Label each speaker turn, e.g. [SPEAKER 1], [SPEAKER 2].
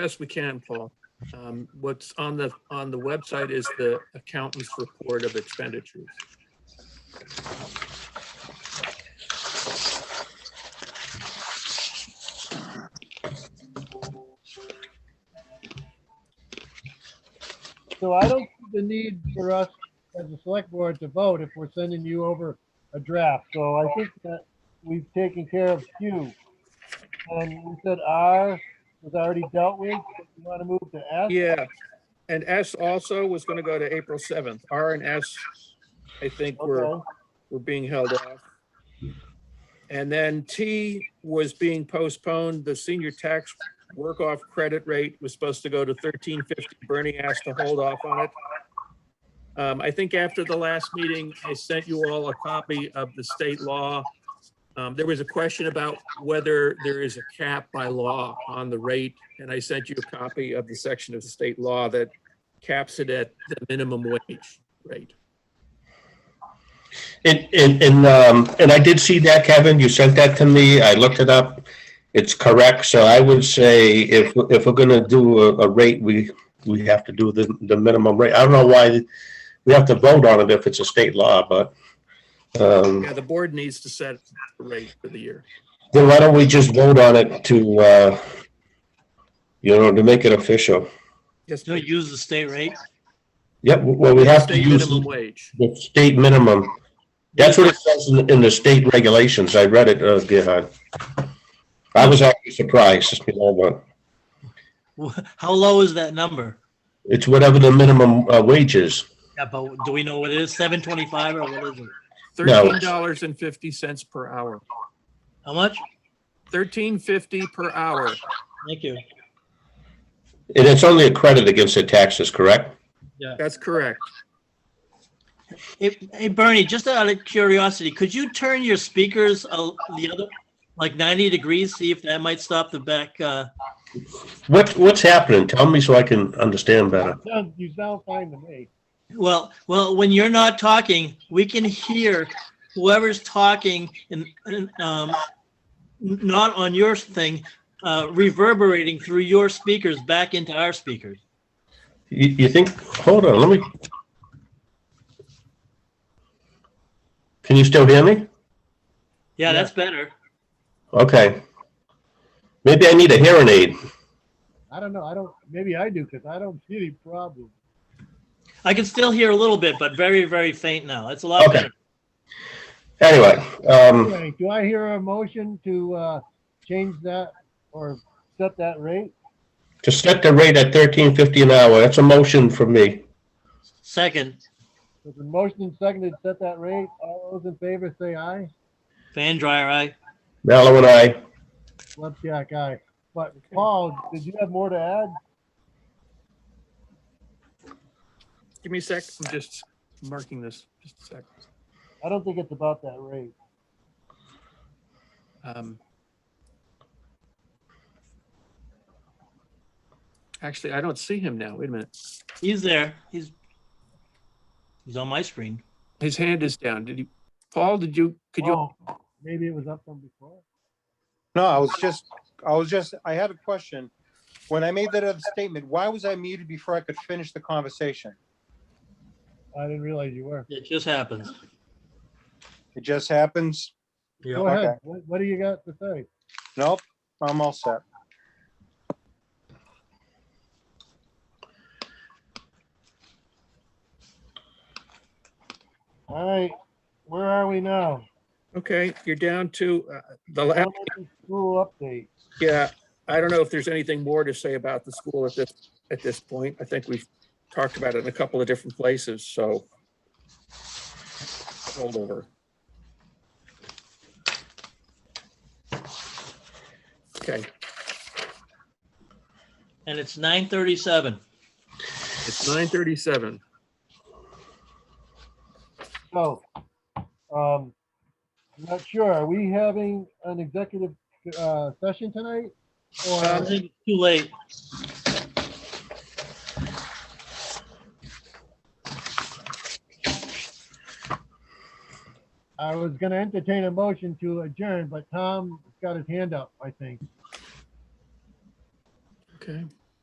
[SPEAKER 1] best we can, Paul. Um, What's on the, on the website is the accountant's report of expenditures.
[SPEAKER 2] So I don't see the need for us as a select board to vote if we're sending you over a draft. So I think that we've taken care of Q. And we said R was already dealt with. You want to move to S?
[SPEAKER 1] Yeah, and S also was going to go to April 7th. R and S, I think were,
[SPEAKER 2] Okay.
[SPEAKER 1] were being held off. And then T was being postponed. The senior tax work-off credit rate was supposed to go to 1350. Bernie asked to hold off on it. Um, I think after the last meeting, I sent you all a copy of the state law. Um, there was a question about whether there is a cap by law on the rate, and I sent you a copy of the section of the state law that caps it at the minimum wage rate.
[SPEAKER 3] And, and, and, um, and I did see that, Kevin, you sent that to me, I looked it up, it's correct, so I would say if, if we're gonna do a, a rate, we, we have to do the, the minimum rate, I don't know why we have to vote on it if it's a state law, but, um,
[SPEAKER 1] Yeah, the board needs to set the rate for the year.
[SPEAKER 3] then why don't we just vote on it to, uh, you know, to make it official?
[SPEAKER 1] Yes,
[SPEAKER 4] Still use the state rate?
[SPEAKER 3] Yep, well, we have to
[SPEAKER 1] state
[SPEAKER 3] use
[SPEAKER 1] minimum
[SPEAKER 3] the
[SPEAKER 1] wage.
[SPEAKER 3] state minimum, that's what it says in, in the state regulations, I read it, uh, Gerhard. I was actually surprised, you know, but.
[SPEAKER 4] Wh- How low is that number?
[SPEAKER 3] It's whatever the minimum uh, wage is.
[SPEAKER 4] Yeah, but do we know what it is? Seven twenty-five or what is it?
[SPEAKER 3] No.
[SPEAKER 1] Thirteen dollars and fifty cents per hour.
[SPEAKER 4] How much?
[SPEAKER 1] Thirteen fifty per hour.
[SPEAKER 4] Thank you.
[SPEAKER 3] And it's only a credit against the taxes, correct?
[SPEAKER 1] That's correct.
[SPEAKER 4] Hey, hey, Bernie, just out of curiosity, could you turn your speakers a- the other, like ninety degrees, see if that might stop the back, uh,
[SPEAKER 3] What, what's happening? Tell me so I can understand better.
[SPEAKER 2] Sounds- You sound fine to me.
[SPEAKER 4] well, well, when you're not talking, we can hear whoever's talking and, and, um, n- not on your thing, uh, reverberating through your speakers back into our speakers.
[SPEAKER 3] You, you think, hold on, let me. Can you still hear me?
[SPEAKER 4] Yeah, that's better.
[SPEAKER 3] Okay. Maybe I need a hearing aid.
[SPEAKER 2] I don't know. I don't, maybe I do because I don't see any problem.
[SPEAKER 4] I can still hear a little bit, but very, very faint now. That's a lot
[SPEAKER 3] Okay.
[SPEAKER 4] better.
[SPEAKER 3] Anyway, um,
[SPEAKER 2] Anyway, do I hear a motion to uh, change that or set that rate?
[SPEAKER 3] to set the rate at thirteen fifty an hour, that's a motion from me.
[SPEAKER 4] Second,
[SPEAKER 2] There's a motion and seconded to set that rate. All those in favor say aye.
[SPEAKER 4] fan dryer, aye.
[SPEAKER 3] Mallow and I.
[SPEAKER 2] Slapjack aye. But Paul, did you have more to add?
[SPEAKER 1] Give me a sec. I'm just marking this. Just a sec.
[SPEAKER 2] I don't think it's about that rate.
[SPEAKER 1] Um, Actually, I don't see him now. Wait a minute.
[SPEAKER 4] He's there. He's he's on my screen.
[SPEAKER 1] His hand is down. Did you, Paul, did you, could you,
[SPEAKER 2] Oh, Maybe it was up from before.
[SPEAKER 5] No, I was just, I was just, I had a question. When I made that other statement, why was I muted before I could finish the conversation?
[SPEAKER 2] I didn't realize you were.
[SPEAKER 4] It just happens.
[SPEAKER 5] It just happens.
[SPEAKER 2] Go
[SPEAKER 5] Okay.
[SPEAKER 2] ahead. What, what do you got to say?
[SPEAKER 5] Nope, I'm all set.
[SPEAKER 2] All right, where are we now?
[SPEAKER 1] okay, you're down to uh, the last,
[SPEAKER 2] Elementary School update.
[SPEAKER 1] yeah. I don't know if there's anything more to say about the school at this, at this point. I think we've talked about it in a couple of different places, so. Hold over. Okay,
[SPEAKER 4] And it's nine thirty-seven.
[SPEAKER 1] it's nine thirty-seven.
[SPEAKER 2] So, um, I'm not sure. Are we having an executive, uh, session tonight?
[SPEAKER 4] I
[SPEAKER 2] Or,
[SPEAKER 1] Uh,
[SPEAKER 4] think it's too late.
[SPEAKER 2] I was gonna entertain a motion to adjourn, but Tom's got his hand up, I think.
[SPEAKER 1] Okay.